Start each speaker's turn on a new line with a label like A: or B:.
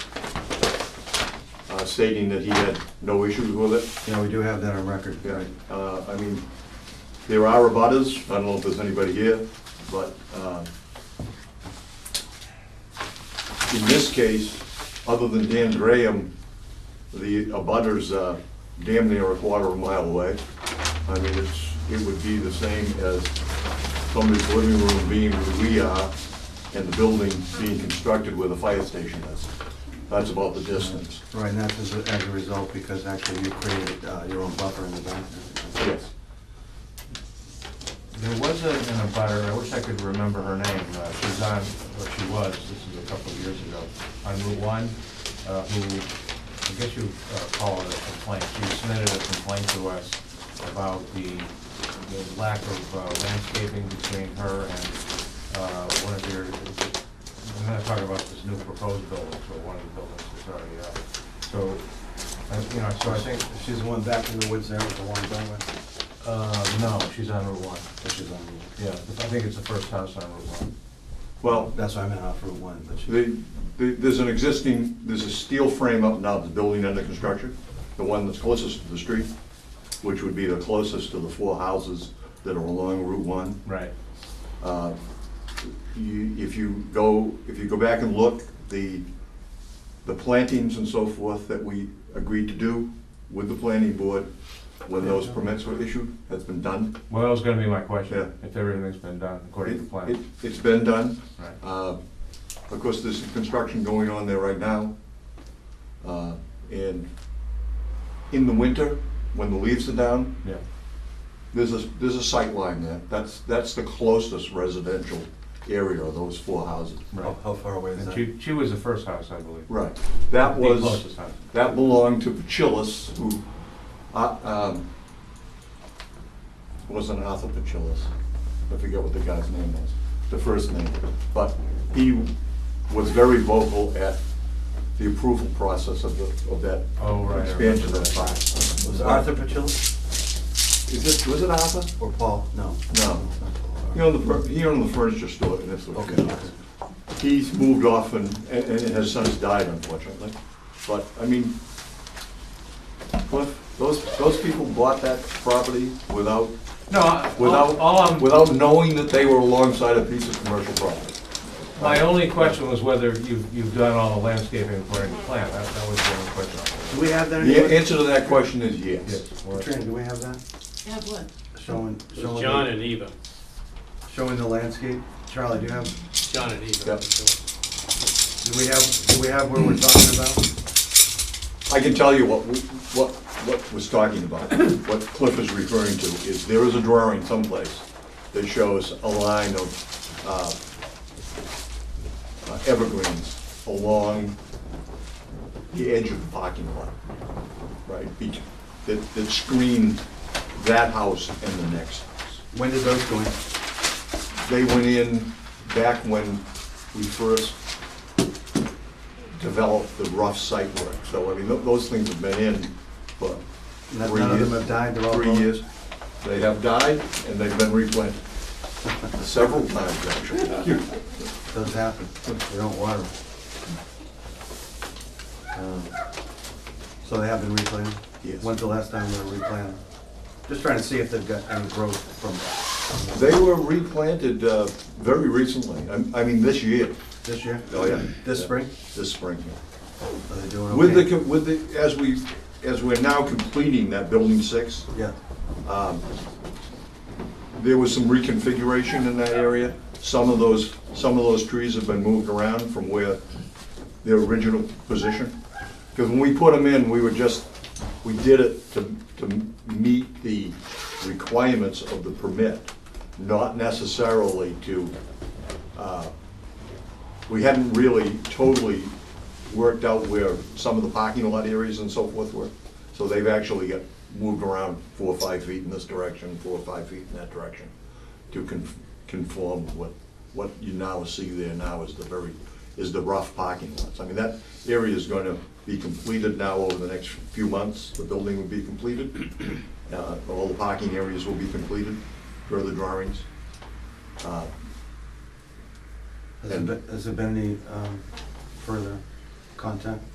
A: uh, stating that he had no issues with it.
B: Yeah, we do have that on record.
A: Yeah, uh, I mean, there are abutters, I don't know if there's anybody here, but uh, in this case, other than Dan Graham, the abutters are damn near a quarter of a mile away. I mean, it's, it would be the same as somebody's living room being where we are and the building being constructed where the fire station is. That's about the distance.
B: Uh, Right, and that's as, as a result, because actually you created uh, your own buffer in the back.
A: Yes.
C: There was a- an abutter, I wish I could remember her name, uh, she's on, or she was, this is a couple of years ago, on Route One, uh, who, I guess you uh, call it a complaint, she submitted a complaint to us about the, the lack of uh, landscaping between her and uh, one of your, I'm not talking about this new proposed building, but one of the buildings that's already up. So, uh, you know, so I think,
B: She's the one back in the woods there with the one down with,
C: uh, no, she's on Route One.
B: which is on, the-
C: Yeah, I think it's the first house on Route One.
A: Well,
B: that's why I meant off Route One, but she,
A: The, the- there's an existing, there's a steel frame up now, the building under construction, the one that's closest to the street, which would be the closest to the four houses that are along Route One.
C: Right.
A: Uh, you- If you go, if you go back and look, the, the plantings and so forth that we agreed to do with the planning board when those permits were issued, has been done.
C: Well, that was gonna be my
A: Yeah.
C: question, if everything's been done according to
A: It-
C: plan.
A: it- It's been done.
C: Right.
A: Uh, Of course, there's construction going on there right now. Uh, And in the winter, when the leaves are down,
C: Yeah,
A: there's a, there's a sight line there. That's, that's the closest residential area of those four houses.
C: right.
B: how how far away is
C: And
B: that?
C: she, she was the first house, I believe.
A: Right. That was.
C: The closest house.
A: That belonged to Pachillis, who, uh, um, wasn't Arthur Pachillis. I forget what the guy's name was, the first name. But he was very vocal at the approval process of the, of that
C: Oh, right, I
A: expansion of
C: remember
A: that
C: that.
A: park.
B: Was it Arthur Pachilla
A: Is this, was it Arthur?
B: or Paul? No.
A: No.
B: It's not Paul.
A: He owned the, fur- he owned the furniture store in this
B: Okay.
A: location. He's moved off and, and and his son's died unfortunately. But, I mean, Cliff, those, those people bought that property without,
C: No, I- all, all
A: without,
C: I'm,
A: without knowing that they were alongside a piece of commercial property.
C: my only question was whether you've, you've done all the landscaping according to plan, that, that was the only question. I
B: Do we have
A: The
B: that? anywhere?
A: answer to that question is
C: had.
A: yes.
C: Yes, or-
B: Katrina, do we have that?
D: Have what?
B: Showing,
E: It
B: showing.
E: was
B: the-
E: John and Eva,
B: Showing the landscape. Charlie, do you have,
E: John and Eva.
A: Yep.
B: do we have, do we have where we're talking about?
A: I can tell you what, we- what, what was talking about, what Cliff is referring to, is there is a drawing someplace that shows a line of uh, uh, evergreens along the edge of the parking lot, right? be- That, that screen that house and the next house.
B: When did those go in?
A: They went in back when we first developed the rough site work. So, I mean, tho- those things have been in for
B: None-
A: three
B: none of them
A: years-
B: have died, they're all
A: Three
B: grown?
A: years. They have died, and they've been replanted several times, actually.
B: Does happen. We don't water them. Um, So they have been replanted?
A: Yes.
B: When's the last time they were replanted? Just trying to see if they've got any growth from
A: They were replanted uh, very recently, I- I mean, this year,
B: this year?
A: Oh, yeah.
B: This
A: Yeah.
B: spring?
A: this spring. here.
B: Are they doing okay?
A: With the, co- with the, as we, as we're now completing that Building 6,
B: Yeah,
A: There was some reconfiguration in that area. Some of those, some of those trees have been moved around from where their original position. Because when we put them in, we were just, we did it to, to meet the requirements of the permit, not necessarily to, uh, we hadn't really totally worked out where some of the parking lot areas and so forth were. So they've actually got moved around four or five feet in this direction, four or five feet in that direction to con- conform with what, what you now see there now is the very, is the rough parking lots. I mean, that area is going to be completed now over the next few months. The building will be completed. Uh, All the parking areas will be completed, further drawings. Uh,
B: has there been, has there been any um, further contact?